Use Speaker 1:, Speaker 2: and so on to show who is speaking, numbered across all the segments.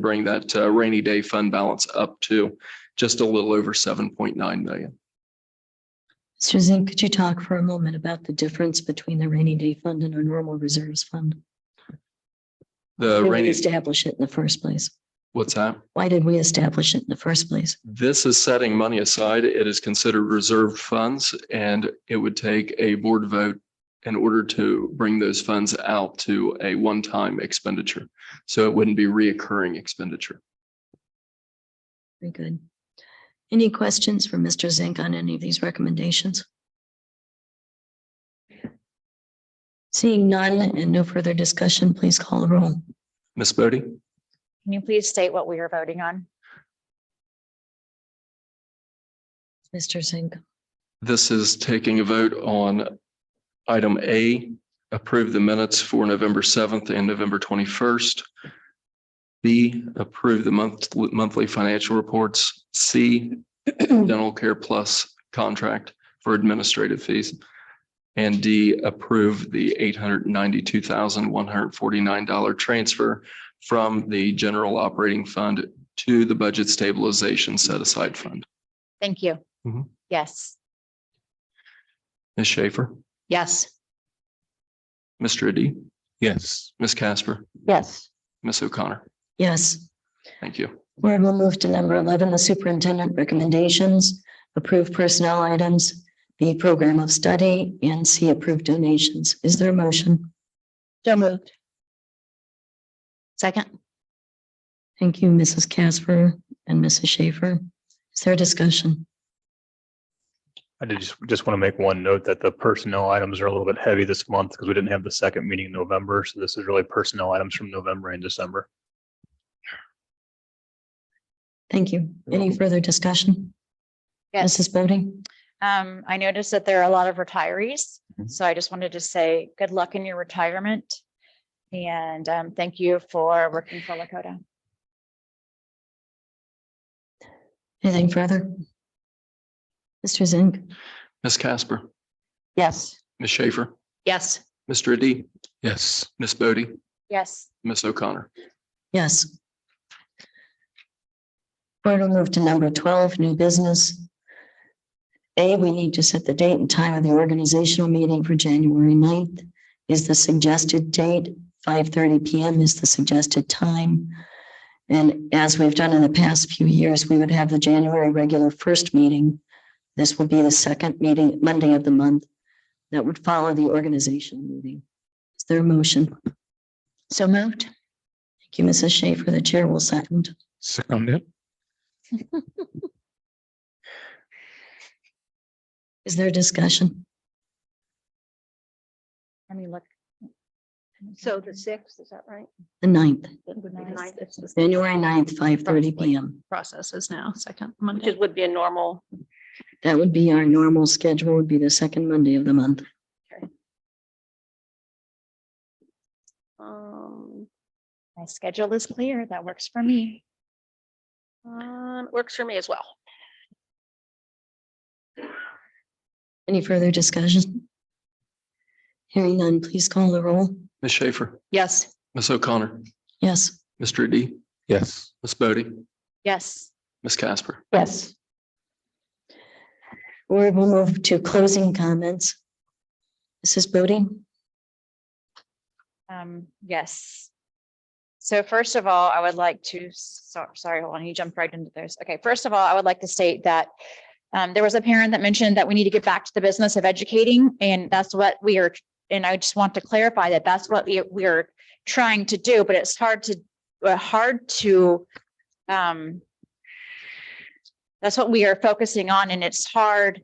Speaker 1: bring that uh, rainy day fund balance up to just a little over seven point nine million.
Speaker 2: Susan, could you talk for a moment about the difference between the rainy day fund and our normal reserves fund?
Speaker 1: The
Speaker 2: Why did we
Speaker 1: rainy,
Speaker 2: Establish it in the first place.
Speaker 1: what's that?
Speaker 2: Why did we establish it in the first place?
Speaker 1: This is setting money aside. It is considered reserved funds and it would take a board vote in order to bring those funds out to a one-time expenditure. So it wouldn't be reoccurring expenditure.
Speaker 2: Very good. Any questions for Mr. Zink on any of these recommendations? Seeing none and no further discussion, please call the roll.
Speaker 1: Ms. Bodie?
Speaker 3: Can you please state what we are voting on?
Speaker 2: Mr. Zink,
Speaker 1: This is taking a vote on item A, approve the minutes for November 7th and November 21st. B, approve the month, monthly financial reports. C, dental care plus contract for administrative fees. And D, approve the $892,149 transfer from the general operating fund to the budget stabilization set aside fund.
Speaker 3: Thank you.
Speaker 1: Mhm.
Speaker 3: Yes,
Speaker 1: Ms. Schaefer,
Speaker 3: yes,
Speaker 1: Mr. Adi,
Speaker 4: Yes.
Speaker 1: Ms. Casper.
Speaker 3: yes,
Speaker 1: Ms. O'Connor,
Speaker 2: yes.
Speaker 1: thank you.
Speaker 2: Board will move to number eleven, the superintendent recommendations, approve personnel items, B program of study, and C approved donations. Is there a motion?
Speaker 3: so moved. Second,
Speaker 2: Thank you, Mrs. Casper and Mrs. Schaefer. Is there discussion?
Speaker 4: I did just, just want to make one note that the personnel items are a little bit heavy this month because we didn't have the second meeting in November. So this is really personnel items from November and December.
Speaker 2: Thank you. Any further discussion?
Speaker 3: yes.
Speaker 2: Mrs. Bodie?
Speaker 3: Um, I noticed that there are a lot of retirees,
Speaker 4: Mhm.
Speaker 3: so I just wanted to say good luck in your retirement. And um, thank you for working for Lakota.
Speaker 2: Anything further? Mr. Zink?
Speaker 1: Ms. Casper,
Speaker 3: Yes.
Speaker 1: Ms. Schaefer,
Speaker 3: Yes.
Speaker 1: Mr. Adi,
Speaker 4: Yes.
Speaker 1: Ms. Bodie,
Speaker 3: Yes,
Speaker 1: Ms. O'Connor.
Speaker 2: Yes. Board will move to number twelve, new business. A, we need to set the date and time of the organizational meeting for January 9th. Is the suggested date, five thirty P M is the suggested time. And as we've done in the past few years, we would have the January regular first meeting. This will be the second meeting, Monday of the month, that would follow the organizational meeting. Is there a motion?
Speaker 3: so moved.
Speaker 2: Thank you, Mrs. Schaefer. The chair will second.
Speaker 4: Seconded.
Speaker 2: Is there discussion?
Speaker 3: Let me look.
Speaker 5: So the sixth, is that right?
Speaker 2: The ninth,
Speaker 5: The ninth is the
Speaker 2: January 9th, five thirty
Speaker 5: Probably.
Speaker 2: PM.
Speaker 5: Processes now, second Monday. Which would be a normal.
Speaker 2: That would be our normal schedule, would be the second Monday of the month.
Speaker 5: Um,
Speaker 3: My schedule is clear. That works for me.
Speaker 5: uh, works for me as well.
Speaker 2: Any further discussion? Hearing none, please call the roll.
Speaker 1: Ms. Schaefer,
Speaker 3: Yes.
Speaker 1: Ms. O'Connor,
Speaker 2: Yes,
Speaker 1: Mr. Adi,
Speaker 4: Yes.
Speaker 1: Ms. Bodie,
Speaker 3: Yes,
Speaker 1: Ms. Casper.
Speaker 5: Yes.
Speaker 2: we will move to closing comments. Mrs. Bodie?
Speaker 3: um, yes. So first of all, I would like to, so, sorry, hold on, you jumped right into this. Okay, first of all, I would like to state that um, there was a parent that mentioned that we need to get back to the business of educating, and that's what we are, and I just want to clarify that that's what we, we are trying to do, but it's hard to, uh, hard to, um, that's what we are focusing on, and it's hard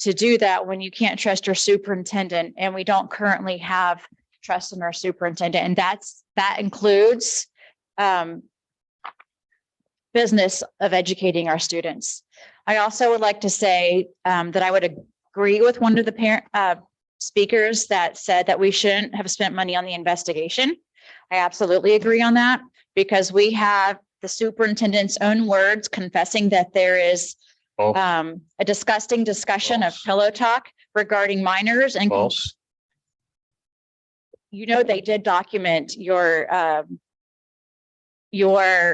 Speaker 3: to do that when you can't trust your superintendent, and we don't currently have trust in our superintendent, and that's, that includes um business of educating our students. I also would like to say um that I would agree with one of the parent uh speakers that said that we shouldn't have spent money on the investigation. I absolutely agree on that because we have the superintendent's own words confessing that there is
Speaker 4: False.
Speaker 3: um a disgusting discussion of
Speaker 4: False.
Speaker 3: pillow talk regarding minors and
Speaker 4: False.
Speaker 3: you know, they did document your, um, your